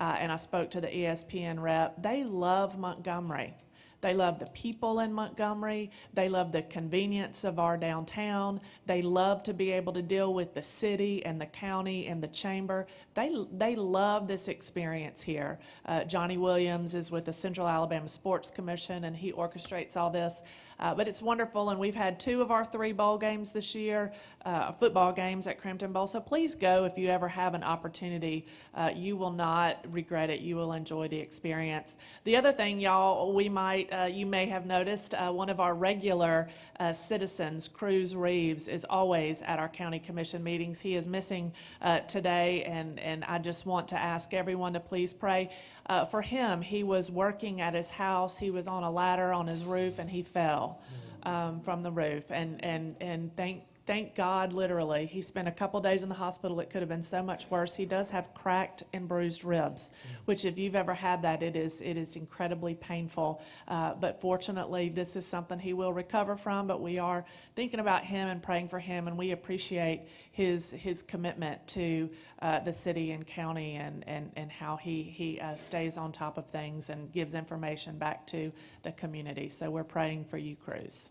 uh, and I spoke to the ESPN rep. They love Montgomery. They love the people in Montgomery. They love the convenience of our downtown. They love to be able to deal with the city and the county and the chamber. They, they love this experience here. Uh, Johnny Williams is with the Central Alabama Sports Commission and he orchestrates all this. Uh, but it's wonderful, and we've had two of our three bowl games this year, uh, football games at Crampton Bowl. So please go if you ever have an opportunity. Uh, you will not regret it. You will enjoy the experience. The other thing, y'all, we might, uh, you may have noticed, uh, one of our regular uh, citizens, Cruz Reeves, is always at our county commission meetings. He is missing uh, today, and and I just want to ask everyone to please pray uh, for him. He was working at his house. He was on a ladder on his roof, and he fell um, from the roof. And and and thank thank God, literally, he spent a couple days in the hospital. It could have been so much worse. He does have cracked and bruised ribs, which if you've ever had that, it is it is incredibly painful. Uh, but fortunately, this is something he will recover from. But we are thinking about him and praying for him, and we appreciate his his commitment to uh, the city and county and and and how he he uh, stays on top of things and gives information back to the community. So we're praying for you, Cruz.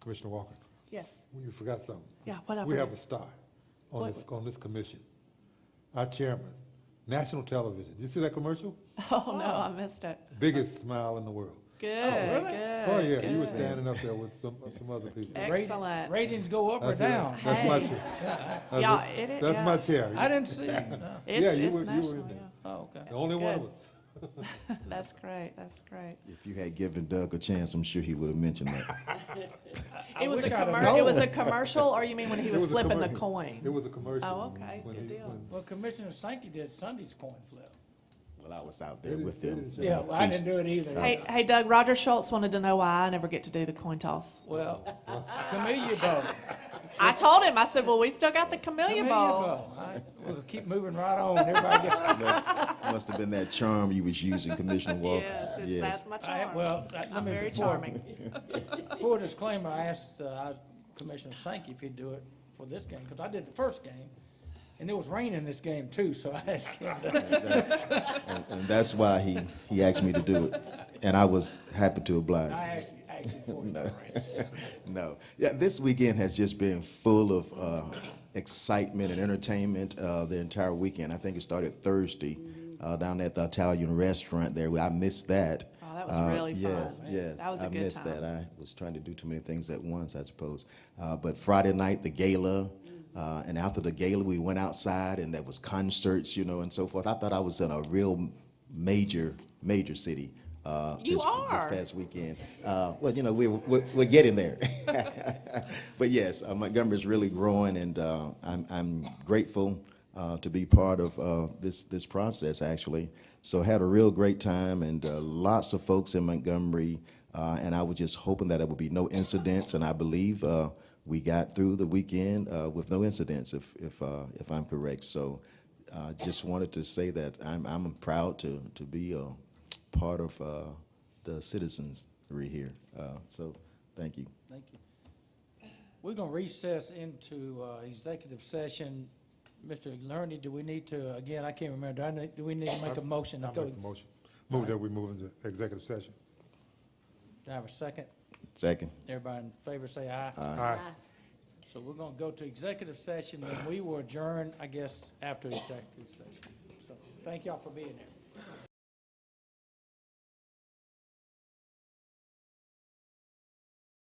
Commissioner Walker, Yes. you forgot something. Yeah, what I We have forgot? a star on What? this, on this commission. Our chairman, national television. Did you see that commercial? Oh no, I missed it. Biggest smile in the world. Good, really? good. Oh, yeah, you were good. standing up there with some, some other people. Ex- Rat- Excellent. Ratings go up or That's it. down. That's my Hey. chair. Yeah, That's it it. is. That's yeah. my chair. I didn't see it, no. It's, Yeah, you it's were- you were in national. there. Oh, okay. The only one of Good. us. yeah. That's great. That's great. If you had given Doug a chance, I'm sure he would have mentioned that. It was a wish I'd have commer- It was a known. commercial, or you mean when he It was a flipping the commercial. It coin? was a commercial. Oh, okay, when good he- deal. when- Well, Commissioner Sankey did Sunday's coin flip. Well, I was out there with them. Yeah, well, I didn't do it either. Hey, hey, Doug. Roger Schultz wanted to know why I never get to do the coin toss. Well, Camellia Bowl. I told him. I said, "Well, we still got the Camellia Bowl." All right, We'll keep moving right on. Everybody gets, Must, must have been that charm you was using, Commissioner Walker. Yes, it's, Yes. that's my I- charm. well, I- let I'm me. very before- charming. Full disclaimer, I asked uh, Commissioner Sankey if he'd do it for this game, because I did the first game, and it was raining this game too, so I asked him. to- That's- and, and that's why he, he asked me to do it. And I was happy to oblige. I asked, asked him for it. No. Yeah, this weekend has just been full of uh, excitement and entertainment uh, the entire weekend. I think it started Thursday uh, down at the Italian restaurant there. I missed that. Oh, that was Uh, really fun. Yes, yes. That was a I good missed time. that. I was trying to do too many things at once, I suppose. Uh, but Friday night, the gala. Uh, and after the gala, we went outside and there was concerts, you know, and so forth. I thought I was in a real major, major city. Uh, You this, are. This past weekend. Uh, well, you know, we, we're, we're getting there. but yes, uh, Montgomery's really growing, and uh, I'm, I'm grateful uh, to be part of uh, this, this process, actually. So had a real great time, and uh, lots of folks in Montgomery, uh, and I was just hoping that there would be no incidents, and I believe uh, we got through the weekend uh, with no incidents, if, if, uh, if I'm correct. So uh, just wanted to say that I'm, I'm proud to, to be a part of uh, the citizenry here. Uh, So, thank you. Thank you. We're gonna recess into uh, executive session. Mr. Lerny, do we need to, again, I can't remember, do I need, do we need to make a motion? to I go- make the motion. Move that we move into executive session. Do I have a second? Second. Everybody in favor say aye. All right. So we're gonna go to executive session, and we will adjourn, I guess, after executive session. So, Thank y'all for being here.